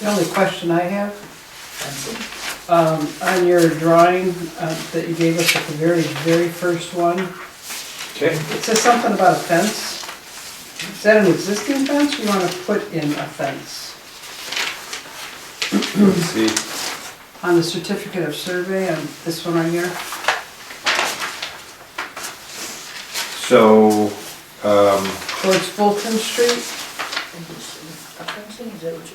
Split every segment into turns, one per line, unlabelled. The only question I have, um, on your drawing, uh, that you gave us at the very, very first one,
Okay.
it says something about a fence. Is that an existing fence? We wanna put in a fence?
Let's see.
On the certificate of survey, on this one right here,
So, um,
towards Fulton Street,
Is that what you're looking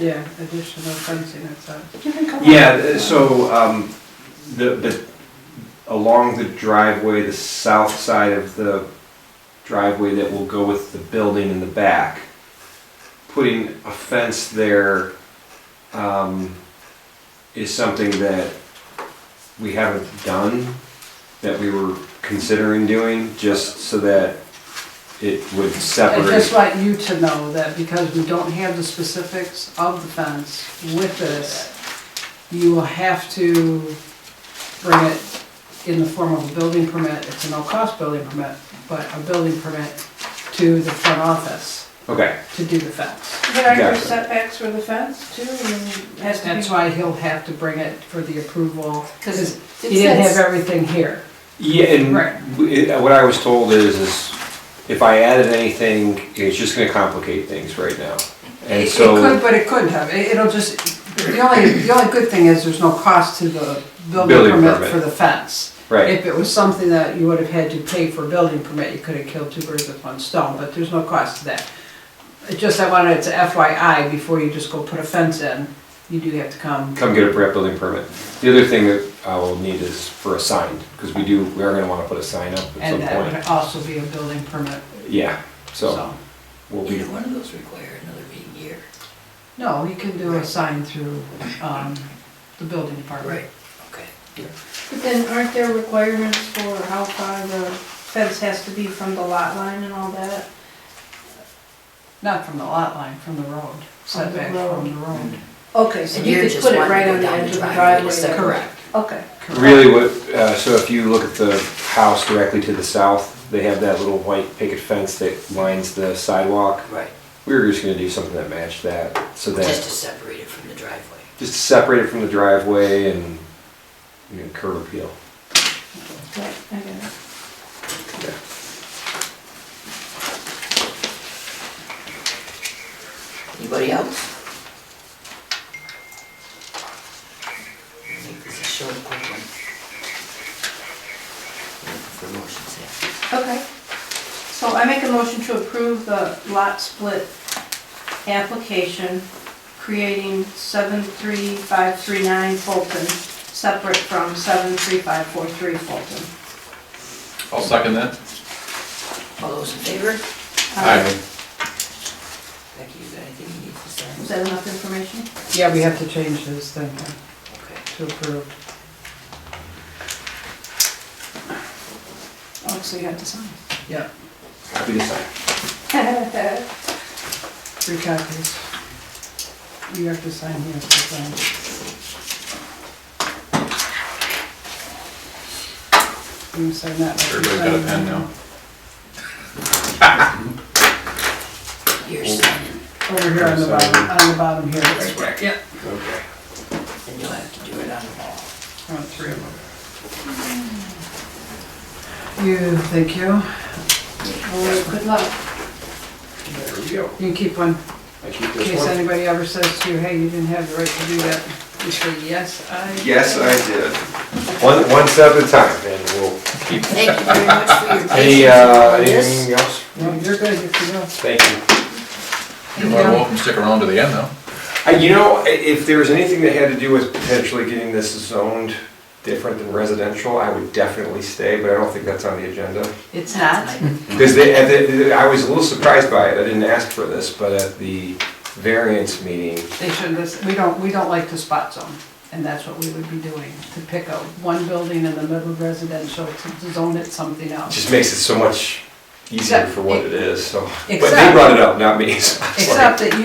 yeah, additional fencing, that's all.
yeah, th- so, um, the, the, along the driveway, the south side of the driveway that will go with the building in the back, putting a fence there, um, is something that we haven't done, that we were considering doing, just so that it would
I
separate.
just want you to know that because we don't have the specifics of the fence with this, you will have to bring it in the form of a building permit, it's a no-cost building permit, but a building permit to the front office
Okay.
to do the fence.
But aren't there
Gotcha.
setbacks for the fence too? And it has to be-
That's why he'll have to bring it for the approval, because he
it
didn't have
says-
everything here.
Yeah, and
Right.
w- it- what I was told is, is if I added anything, it's just gonna complicate things right now.
It
And
it could,
so,
but it couldn't have, It- it'll just, the only, the only good thing is there's no cost to the building
Building
permit
permit.
for the fence.
right,
If it was something that you would have had to pay for a building permit, you could have killed two birds with one stone, but there's no cost to that. It Just I wanted it to FYI, before you just go put a fence in, you do have to come.
come get a prep building permit. The other thing that I will need is for a sign, because we do, we are gonna wanna put a sign up at
And
some
that would
point.
also be a building permit,
Yeah, so
so.
we'll be,
Either one of those require another meeting year.
No, you can do a sign through, um, the building department.
Okay.
But then aren't there requirements for how far the fence has to be from the lot line and all that?
Not from the lot line, from the road, setback from the road.
Okay, so
And
you
you're
could
just
put it
wanting
right
to
on
go
the
down
edge
the
of the
driveway,
driveway.
is that
there.
Correct.
Okay,
really what, uh, so if you look at the house directly to the south, they have that little white picket fence that lines the sidewalk.
Right,
We were just gonna do something that matched that, so that.
just to separate it from the driveway.
just separate it from the driveway and you know, curb appeal.
right, I get it.
Anybody else? Make this a short, quick one. Looking For motions here.
Okay, so I make a motion to approve the lot split application, creating 73539 Fulton, separate from 73543 Fulton.
I'll second that.
All those in favor?
Uh,
Becky, you got anything you need to
Is
say?
that enough information?
Yeah, we have to change this thing
Okay.
to approve.
Oh, so you have to sign.
Yeah,
Happy to sign.
three copies. You have to sign here. to sign. You can sign that. like you
Everybody's got a
sign
pen
that.
now.
You're signing,
Over here on the bottom, on the bottom here. Right there. Yep.
Okay.
and you'll have to do it on the wall.
I want Oh, three of them. You, thank you.
Well, good luck.
There we go.
You can keep one.
I keep
In case anybody ever says to you, hey, you didn't have the right to do that, you say, yes, I. did."
did. One, one step at a time, and we'll.
Thank you very much for your
Any,
patience
uh,
on this.
anything else?
No, you're good, you can go.
Thank you.
You're more than welcome to stick around to the end, though.
Uh, you know, i- if there was anything that had to do with potentially getting this zoned different than residential, I would definitely stay, but I don't think that's on the agenda.
It's
Because they, at the, I was a little surprised by it, I didn't ask for this, but at the variance meeting,
They shouldn't, this- we don't, we don't like to spot zone, and that's what we would be doing, to pick out one building in the middle of residential to zone it something else.
just makes it so much easier
Except-
for what it is, so. But they
Except-
brought it up, not me, so. I was like,
Except that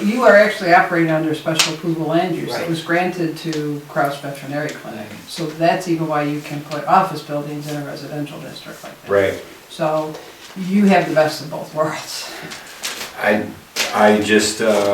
you, you are actually operating under special approval land use that was granted to Kraus Veterinary Clinic. So that's even why you can put office buildings in a residential district like that.
Right,
So you have the best of both worlds.
I, I just, uh,